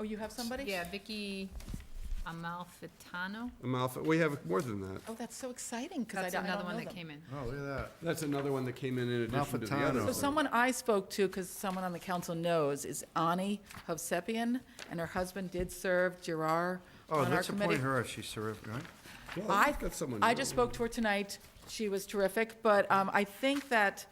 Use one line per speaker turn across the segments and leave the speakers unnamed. Oh, you have somebody?
Yeah, Vicky Amalfitano.
Amalfi, we have more than that.
Oh, that's so exciting, because I
That's
don't, I
another
don't
one
know
that
them.
came in.
Oh, look at that.
That's another one that came in in addition to the
Malfitano.
other.
So someone I spoke to, because someone on the council knows, is Ani Hovsepian, and her husband did serve Gerard
Oh,
on our
let's
committee.
appoint her if she served, right?
Well,
I,
we've got someone
I
new.
just spoke to her tonight. She was terrific, but um, I think that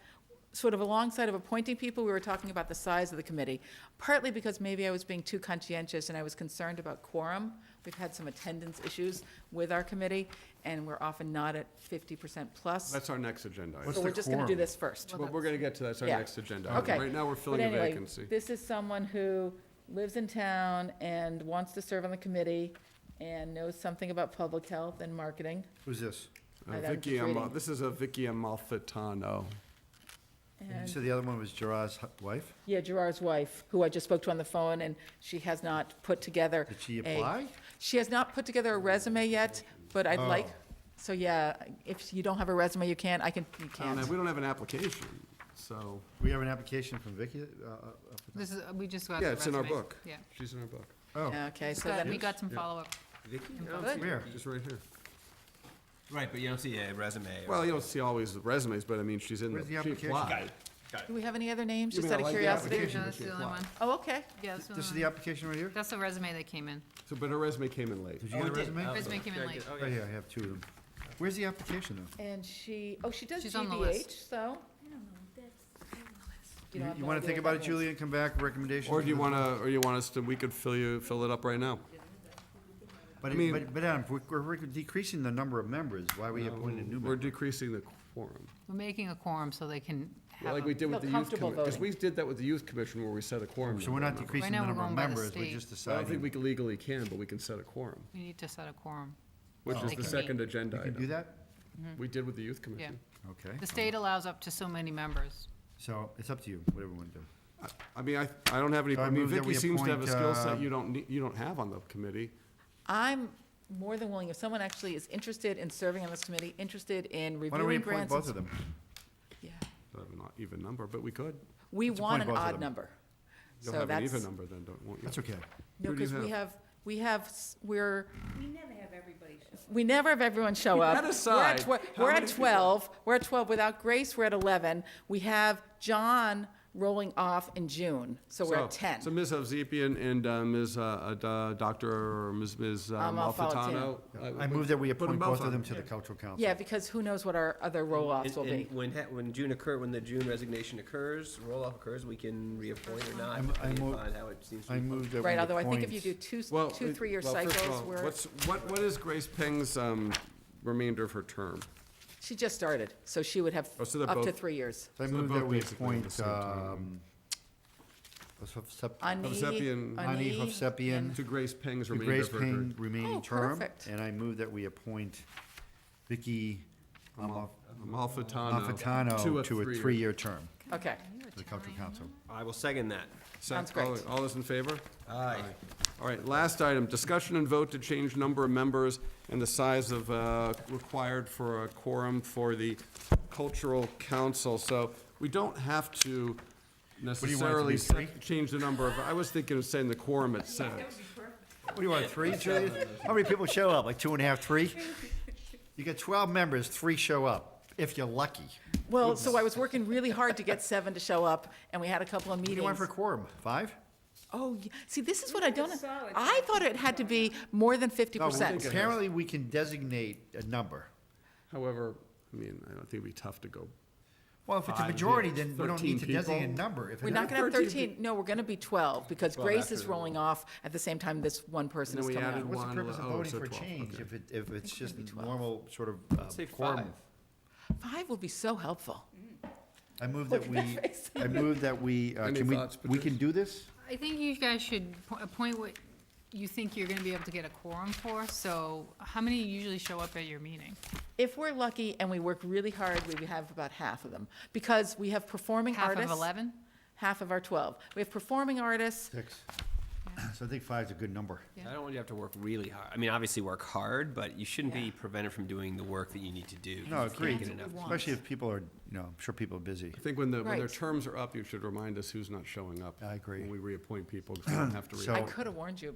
sort of alongside of appointing people, we were talking about the size of the committee, partly because maybe I was being too conscientious and I was concerned about quorum. We've had some attendance issues with our committee, and we're often not at 50% plus.
That's our next agenda item.
What's
So we're
the
just going to do
quorum?
this first.
But we're gonna get to that, that's our
Yeah.
next agenda
Okay.
item. Right now, we're
But
filling a
anyway,
vacancy.
This is someone who lives in town and wants to serve on the committee and knows something about public health and marketing.
Who's this?
Uh,
I got
Vicky
it.
Amal, this is a Vicky Amalfitano.
You
and-
said the other one was Gerard's hu- wife?
Yeah, Gerard's wife, who I just spoke to on the phone, and she has not put together.
Did she
a-
apply?
She has not put together a resume yet, but I'd like,
Oh.
so yeah, if you don't have a resume, you can't, I can, you
I don't know,
can't.
Oh, Um, we don't have an application, so,
We have an application from Vicky? uh, uh, up at the-
This is, we just got the
yeah, it's in our
resume.
book.
Yeah.
She's in our book.
Oh,
Okay, so
Got-
then,
We got some follow-up.
Vicky?
info.
Good.
where?
Just right here.
Right, but you don't see a resume. or-
Well, you don't see always the resumes, but I mean, she's in,
Where's the
the she
application?
applied.
do we have any other names,
You
just
mean I
out of
like the
curiosity?
No,
application, but
that's
she
the only
applied.
one.
Oh, okay,
Yeah, that's the
This is
only
the
one.
application right here?
That's the resume that came in.
So, but her resume came in late.
Did you get a
Oh, it did.
resume?
Oh,
Resume came in
yeah,
late.
okay.
Right here, I have two of them. Where's the application, though?
and she, oh, she does
She's on the list.
GBH, so. don't know, that's.
You want to think about it, Julie, and come back, recommendation?
Or do you wanna, or you want us to, we could fill you, fill it up right now?
But,
I mean-
it- but, but Adam, if we're- we're decreasing the number of members, why are we appointing a new
We're
member?
decreasing the quorum,
We're making a quorum so they can have
like we
a,
did with the
Feel
youth
comfortable
commission, because we did that with the youth commission where we set a quorum.
So we're
number.
not decreasing the
now we're
number of
going by the
members, we're
state.
just
I don't think we
deciding.
legally can, but we can set a quorum,
we need to set a quorum.
which is
Like
the
me.
second agenda
You Oh, can do
item.
that?
We did with the youth commission.
Okay.
The state allows up to so many members.
So it's up to you, whatever you want to do.
I mean, I, I don't have any,
So I
I mean,
move that
Vicky
we
seems to have a
appoint,
skill
uh,
set you don't, need- you don't have on the committee.
I'm more than willing, if someone actually is interested in serving on this committee, interested in
Why don't we
reviewing
appoint
grants.
both of them?
Yeah,
I have an even number, but we could.
we
Let's
want
appoint
an
both of
odd
them.
number.
You'll
So
have an
that's-
even number then, don't, won't you?
That's okay.
No,
Who do you
because we have, we have, s- we're,
We never have everybody show up.
we never have everyone show
That
up. We're at
aside,
twe-
how
We're at
many people-
twelve, we're at twelve, without Grace, we're at eleven, we have John rolling off in June, so we're at
So-
ten.
So Ms. Hovsepian and uh, Ms., uh, uh, da- Dr., or Ms. Ms. uh,
Um,
Malfitano.
I move that we
put 'em
appoint both
on.
of them to the cultural council.
Yeah, because who knows what our other roll-offs
And-
will be.
and when, ha- when June occur, when the June resignation occurs, roll-off occurs, we can reappoint or not,
I'm- I
depending
move-
upon how it seems to
I
be.
move that we appoint.
Right, although I think if you do two, s-
Well,
two,
it-
three-year
well, first of
cycles,
all,
we're,
What's, what, what is Grace Peng's, um, remainder of her term?
she just started, so she would have
Oh, so they're
up to
both-
three years.
So I
So they're
move that
both
we
basically on the
appoint,
same time.
um, let's have sep-
Ani,
Hovsepian-
Ani Hovsepian
To Grace Peng's
to
remainder
Grace
of her term.
Payne remaining
Oh,
term.
perfect.
And I move that we appoint Vicky Amalf-
Malfitano
Malfitano to a three-year term
Okay,
to the cultural council.
I will second that.
Sounds
Sec- all-
great.
All those in favor?
Aye.
All right, last item, discussion and vote to change number of members and the size of, uh, required for a quorum for the cultural council. So we don't have to
you want it to be,
necessarily set-
three?
change the number of, I was thinking of saying the quorum at six.
What do you want, three, Julie? How many people show up? Like two and a half, three? You get 12 members, three show up, if you're lucky.
well, so I was working really hard to get seven to show up, and we had a couple of
What do
meetings.
you want for quorum? Five?
Oh, y- see, this is what I don't,
it's solid.
I thought it had to be more than fifty
No,
percent.
Apparently, we can designate a number.
However, I mean, I don't think it'd be tough to go.
Well, if it's a
Five,
majority,
yeah,
then we don't
13
need to
people.
designate a number. If
We're
it's-
not gonna have
13.
thirteen, no, we're gonna be twelve, because Grace
after
is
the-
rolling off at the same time this one person is
And then we
coming
added
on.
What's the
One,
purpose of
oh,
voting
so
for
12,
change
okay.
if it, if it's just
maybe 12.
normal sort of uh,
Say
quorum?
five.
Five would be so helpful.
I move that
Look at
we,
that face.
I move that we, uh,
Any
can we,
thoughts,
we can do this?
I think you guys should po- appoint what you think you're gonna be able to get a quorum for, so how many usually show up at your meeting?
If we're lucky and we work really hard, we have about half of them, because we have performing
Half
artists.
of eleven?
Half of our twelve. We have performing artists,
Six. So I think five's a good number.
Yeah.
I don't want you to have to work really hard. I mean, obviously work hard, but you shouldn't be prevented from doing the work that you need to do. 'cause
No,
you can't
agreed.
That's
get
what
enough.
we want.
Especially if people are, you know, I'm sure people are busy.
I think when the, when their
Right.
terms are up, you should remind us who's not showing up.
I agree.
When we reappoint people, 'cause we don't have to
So-
reappoint.
I could have warned you